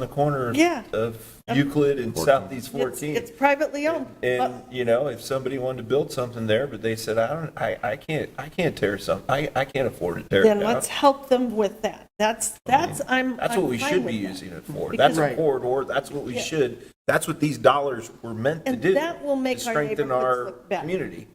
the corner Yeah. of Euclid and Southeast It's- 14. It's privately owned. And, you know, if somebody wanted to build something there, but they said, I don't, I, I can't, I can't tear some, I, I can't afford to tear it Then down. let's help them with that. That's, that's, I'm. That's what I'm we fine should with be that. using it for. Because- That's a corridor, that's what we Yeah. should, that's what these dollars were meant to And do. that will to make our Strengthen neighborhoods our look better. community.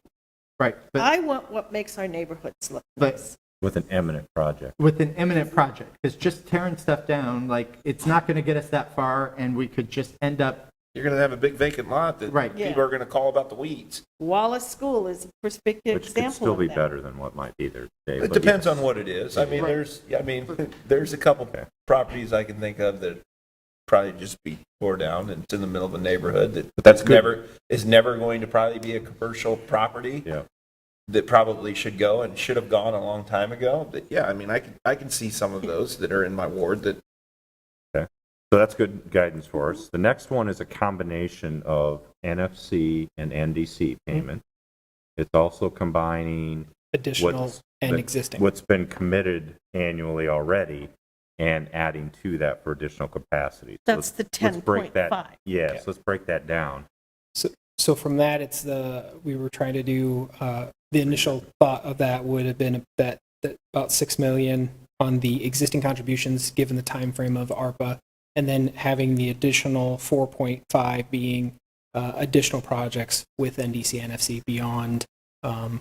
Right, but I want what makes our neighborhoods look But- nice. with an eminent project. with an imminent project, because just tearing stuff down, like, it's not going to get us that far, and we could just end up, You're gonna have a big vacant lot that Right. Yeah. people are gonna call about the weeds. Wallace School is a perspicuous Which could example still of be that. better than what might be there today. It but depends yes. on what it is. I mean, there's, I mean, there's a couple properties I can think of that probably just be tore down and it's in the middle of a neighborhood that that's is good. never, is never going to probably be a commercial property Yeah, that probably should go and should have gone a long time ago. But yeah, I mean, I can, I can see some of those that are in my ward that so that's good guidance for us. The next one is a combination of NFC and NDC payment. Mm-hmm. It's also combining additional what's- and existing. What's been committed annually already and adding to that for additional capacity. So That's the let's- let's break that- 10.5. Okay. Yes, let's break that down. So, so from that, it's the, we were trying to do, uh, the initial thought of that would have been that, that about 6 million on the existing contributions, given the time frame of ARPA, and then having the additional 4.5 being, uh, additional projects with NDC NFC beyond, um,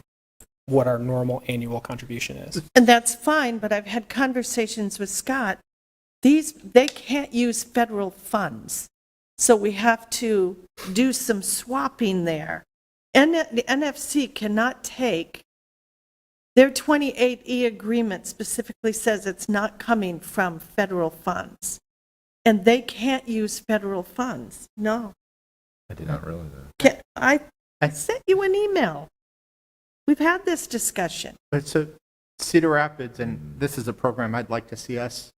what our normal annual contribution is. And that's fine, but I've had conversations with Scott. These, they can't use federal funds. So we have to do some swapping there. And the NFC cannot take, their 28E agreement specifically says it's not coming from federal funds. And they can't use federal funds. No. I did not realize that. Can- I I- sent you an email. We've had this discussion. but so Cedar Rapids, and this is a program I'd like to see us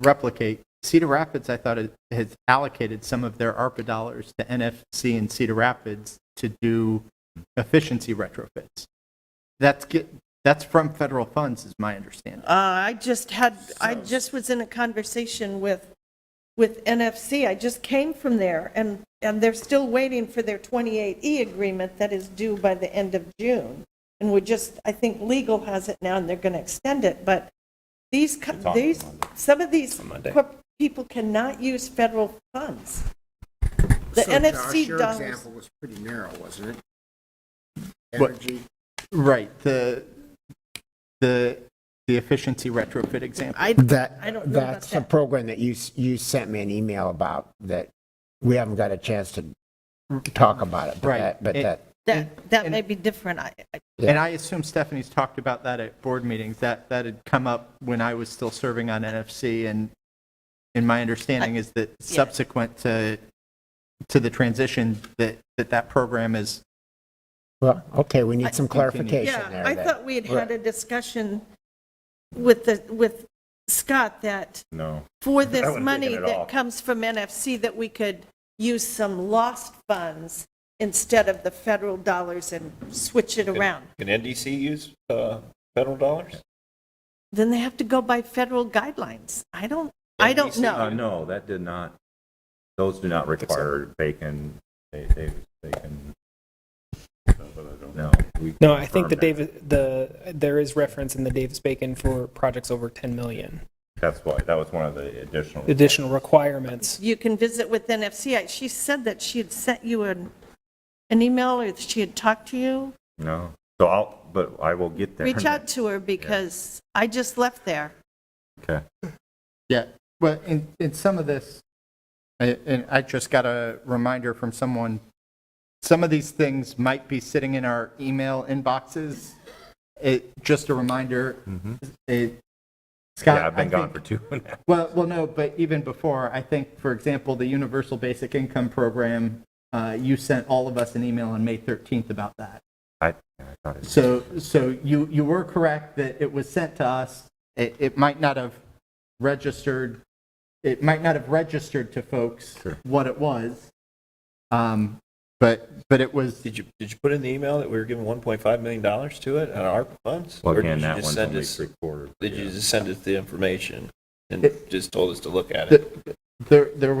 replicate. Cedar Rapids, I thought, it has allocated some of their ARPA dollars to NFC and Cedar Rapids to do efficiency retrofits. That's, get that's from federal funds, is my understanding. Uh, I just had, I just was in a conversation with, with NFC. I just came from there, and, and they're still waiting for their 28E agreement that is due by the end of June. And we're just, I think legal has it now, and they're going to extend it, but these, co- It's on these, Monday. some of these On Monday. corp- people cannot use federal funds. The So, Josh, NFC your dollars. example was pretty narrow, wasn't it? What? Energy, Right, the, the, the efficiency retrofit example. I, I that, don't know about that's a that. program that you, s- you sent me an email about that we haven't got a chance to talk about it, but Right. that, but It- that, That, that may be different. I, I- And I assume Stephanie's talked about that at board meetings, that, that had come up when I was still serving on NFC, and, and my understanding is that subsequent to, to the transition, that, that that program is, well, okay, we need some Continue. clarification Yeah, there. I that- thought we had had a discussion with the, with Scott that No. for I this wouldn't have money taken it all. that comes from NFC, that we could use some lost funds instead of the federal dollars and switch it around. Can NDC use, uh, federal dollars? Then they have to go by federal guidelines. I don't, I don't NBC? know. Uh, no, that did not, those do not require bacon, they, they, they can. No. we No, I think the confirmed that. Davis, the, there is reference in the Davis-Bacon for projects over 10 million. That's why, that was one of the additional. Additional requirements You can visit with NFC. I- She said that she had sent you an, an email or that she had talked to you. No, so I'll, but I will get there. Reach out to her because I just left there. Okay, yeah, well, in, in some of this, I- and I just got a reminder from someone, some of these things might be sitting in our email inboxes. It, just a reminder, it, Mm-hmm. Scott, yeah, I've I been gone think- for two and a half. Well, well, no, but even before, I think, for example, the Universal Basic Income Program, uh, you sent all of us an email on May 13th about that. I, I thought it, So, so you, you were correct that it was sent to us. It, it might not have registered, it might not have registered to folks Sure. what it was. Um, but, but it was, Did you, did you put in the email that we were giving one point five million dollars to it on our funds? well, Or did again, you that just one's send only us- three quarters. Did you yeah. just send us the information and It- just told us to look at it? the, There, there was